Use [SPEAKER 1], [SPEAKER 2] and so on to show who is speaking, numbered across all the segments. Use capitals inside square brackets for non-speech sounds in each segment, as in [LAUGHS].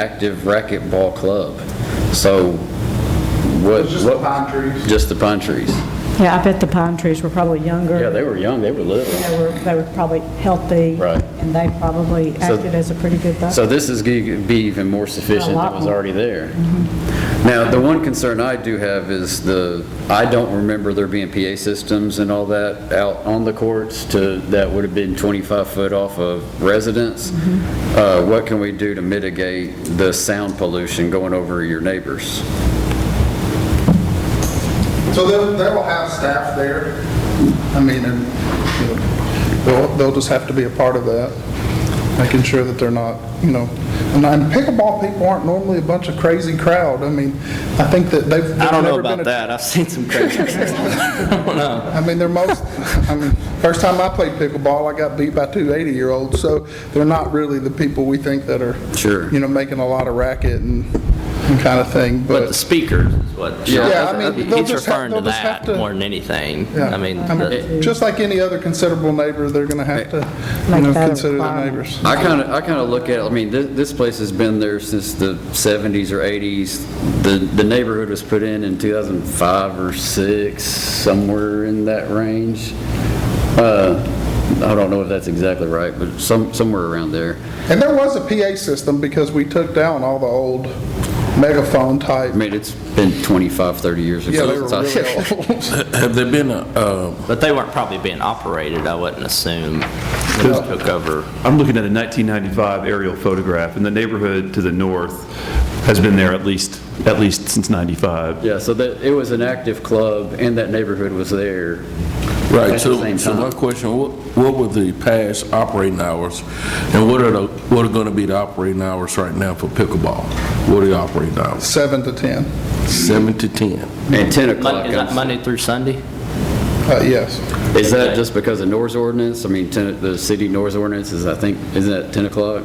[SPEAKER 1] active racquetball club. So what?
[SPEAKER 2] It's just the
[SPEAKER 1] what-
[SPEAKER 2] pine trees.
[SPEAKER 1] Just the pine trees.
[SPEAKER 3] Yeah, I bet the pine trees were probably younger.
[SPEAKER 1] Yeah, they were young, they were little.
[SPEAKER 3] They were, they were probably healthy.
[SPEAKER 1] Right.
[SPEAKER 3] And they probably acted as a pretty good buffer.
[SPEAKER 1] So this is going to be even more sufficient
[SPEAKER 3] A lot
[SPEAKER 1] than was
[SPEAKER 3] more.
[SPEAKER 1] already there. Now, the one concern I do have is the, I don't remember there being PA systems and all that out on the courts to, that would have been 25 foot off of residents. Uh, What can we do to mitigate the sound pollution going over your neighbors?
[SPEAKER 2] So they'll, they will have staff there. I mean, and, you know, they'll, they'll just have to be a part of that, making sure that they're not, you know, and and pickleball people aren't normally a bunch of crazy crowd. I mean, I think that they've.
[SPEAKER 4] I don't know
[SPEAKER 2] they've never been
[SPEAKER 4] about
[SPEAKER 2] a-
[SPEAKER 4] that. I've seen
[SPEAKER 2] [LAUGHS]
[SPEAKER 4] some crazy.
[SPEAKER 2] I mean, they're most, I mean, first time I played pickleball, I got beat by two 80-year-olds, so they're not really the people we think that are.
[SPEAKER 1] Sure.
[SPEAKER 2] You know, making a lot of racket and, and kind of thing,
[SPEAKER 4] But the
[SPEAKER 2] but,
[SPEAKER 4] speakers is what. Sean-
[SPEAKER 2] Yeah, I mean, they'll
[SPEAKER 4] He's
[SPEAKER 2] just have-
[SPEAKER 4] referring to
[SPEAKER 2] they'll just have
[SPEAKER 4] that
[SPEAKER 2] to-
[SPEAKER 4] more than anything.
[SPEAKER 2] yeah.
[SPEAKER 4] I mean, the-
[SPEAKER 2] just like any other considerable neighbor, they're going to have to, you
[SPEAKER 3] Make
[SPEAKER 2] know,
[SPEAKER 3] that a
[SPEAKER 2] consider their
[SPEAKER 3] requirement.
[SPEAKER 2] neighbors.
[SPEAKER 1] I kind of, I kind of look at, it, I mean, this, this place has been there since the 70s or 80s. The, the neighborhood was put in in 2005 or 6, somewhere in that range. Uh, I don't know if that's exactly right, but some, somewhere around there.
[SPEAKER 2] And there was a PA system because we took down all the old megaphone type.
[SPEAKER 1] I mean, it's been 25, 30 years ago.
[SPEAKER 2] Yeah, they were
[SPEAKER 1] So-
[SPEAKER 5] [LAUGHS]
[SPEAKER 2] really old.
[SPEAKER 5] Have there been, a, uh,
[SPEAKER 4] but they weren't probably being operated, I wouldn't assume, when they took over.
[SPEAKER 6] I'm looking at a 1995 aerial photograph, and the neighborhood to the north has been there at least, at least since 95.
[SPEAKER 1] Yeah, so that, it was an active club, and that neighborhood was there. at the
[SPEAKER 5] right, so,
[SPEAKER 1] same
[SPEAKER 5] so my
[SPEAKER 1] time.
[SPEAKER 5] question, what, what were the past operating hours? And what are the, what are gonna be the operating hours right now for pickleball? What are the operating hours?
[SPEAKER 2] Seven to 10,
[SPEAKER 5] Seven to 10?
[SPEAKER 1] And 10
[SPEAKER 4] Mon-
[SPEAKER 1] o'clock.
[SPEAKER 4] Is that Monday through Sunday?
[SPEAKER 2] Uh, yes.
[SPEAKER 1] Is that just because of NOR's ordinance? I mean, 10 the city NOR's ordinance is, I think, isn't that 10 o'clock?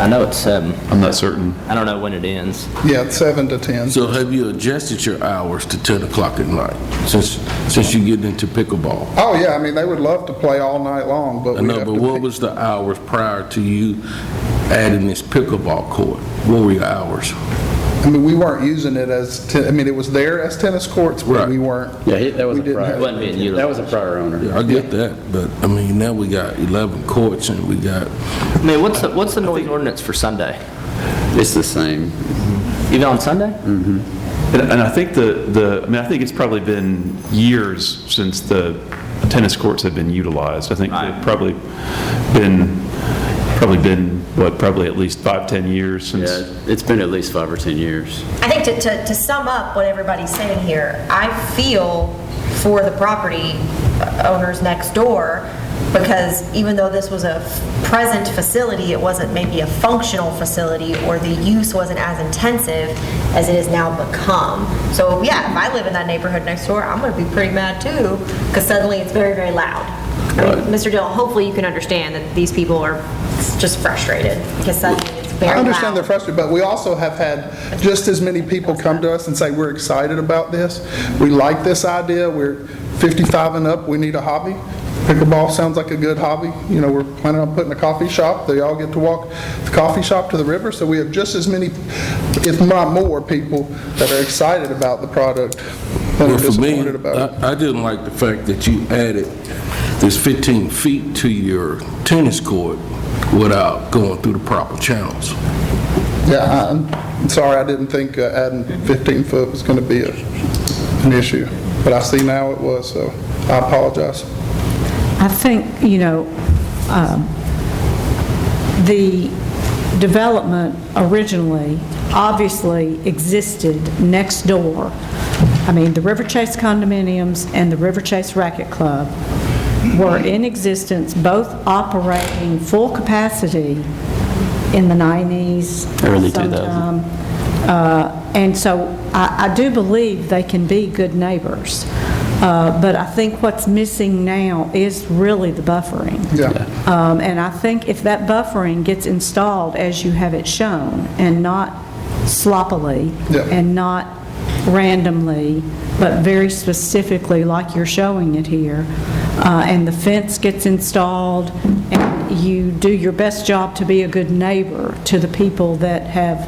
[SPEAKER 4] I know it's seven.
[SPEAKER 6] I'm not certain.
[SPEAKER 4] I don't know when it ends.
[SPEAKER 2] Yeah, seven to 10.
[SPEAKER 5] So have you adjusted your hours to 10 o'clock at night, since, since you get into pickleball?
[SPEAKER 2] Oh, yeah, I mean, they would love to play all night long, but
[SPEAKER 5] I
[SPEAKER 2] we
[SPEAKER 5] know,
[SPEAKER 2] have
[SPEAKER 5] but
[SPEAKER 2] to
[SPEAKER 5] what
[SPEAKER 2] pick.
[SPEAKER 5] was the hours prior to you adding this pickleball court? What were your hours?
[SPEAKER 2] I mean, we weren't using it as, te- I mean, it was there as tennis courts, but
[SPEAKER 5] Right.
[SPEAKER 2] we weren't.
[SPEAKER 1] Yeah, he- that was a
[SPEAKER 2] We didn't
[SPEAKER 1] prior.
[SPEAKER 2] have-
[SPEAKER 4] Wasn't being
[SPEAKER 1] That was a prior owner.
[SPEAKER 5] I get that, but, I mean, now we got 11 courts and we got,
[SPEAKER 4] I mean, what's, the what's the noise ordinance for Sunday?
[SPEAKER 1] It's the same.
[SPEAKER 4] Even on Sunday?
[SPEAKER 6] And and I think the, the, I mean, I think it's probably been years since the tennis courts have been utilized. I think they've probably been, probably been, what, probably at least five, 10 years since.
[SPEAKER 1] Yeah, it's been at least five or 10 years.
[SPEAKER 7] I think to, to, to sum up what everybody's saying here, I feel for the property owners next door because even though this was a f- present facility, it wasn't maybe a functional facility or the use wasn't as intensive as it has now become. So yeah, if I live in that neighborhood next door, I'm gonna be pretty mad too because suddenly it's very, very loud. I mean, Mr. Dill, hopefully you can understand that these people are just frustrated because suddenly it's very
[SPEAKER 2] I
[SPEAKER 7] loud.
[SPEAKER 2] understand they're frustrated, but we also have had just as many people come to us and say, we're excited about this, we like this idea, we're 55 and up, we need a hobby. Pickleball sounds like a good hobby, you know, we're planning on putting a coffee shop, they all get to walk the coffee shop to the river, so we have just as many, if not more, people that are excited about the product than are
[SPEAKER 5] well, for me,
[SPEAKER 2] disappointed about it.
[SPEAKER 5] I I didn't like the fact that you added this 15 feet to your tennis court without going through the proper channels.
[SPEAKER 2] Yeah, I'm sorry, I didn't think uh, adding 15 foot was going to be a- an issue, but I see now it was, so I apologize.
[SPEAKER 3] I think, you know, um, the development originally obviously existed next door. I mean, the River Chase condominiums and the River Chase Racket Club were in existence, both operating full capacity in the 90s.
[SPEAKER 1] Early
[SPEAKER 3] sometime. Uh, And so I I do believe they can be good neighbors, Uh, but I think what's missing now is really the buffering.
[SPEAKER 2] Yeah.
[SPEAKER 3] Um, And I think if that buffering gets installed as you have it shown, and not sloppily,
[SPEAKER 2] Yeah.
[SPEAKER 3] and not randomly, but very specifically like you're showing it here, uh, and the fence gets installed, and you do your best job to be a good neighbor to the people that have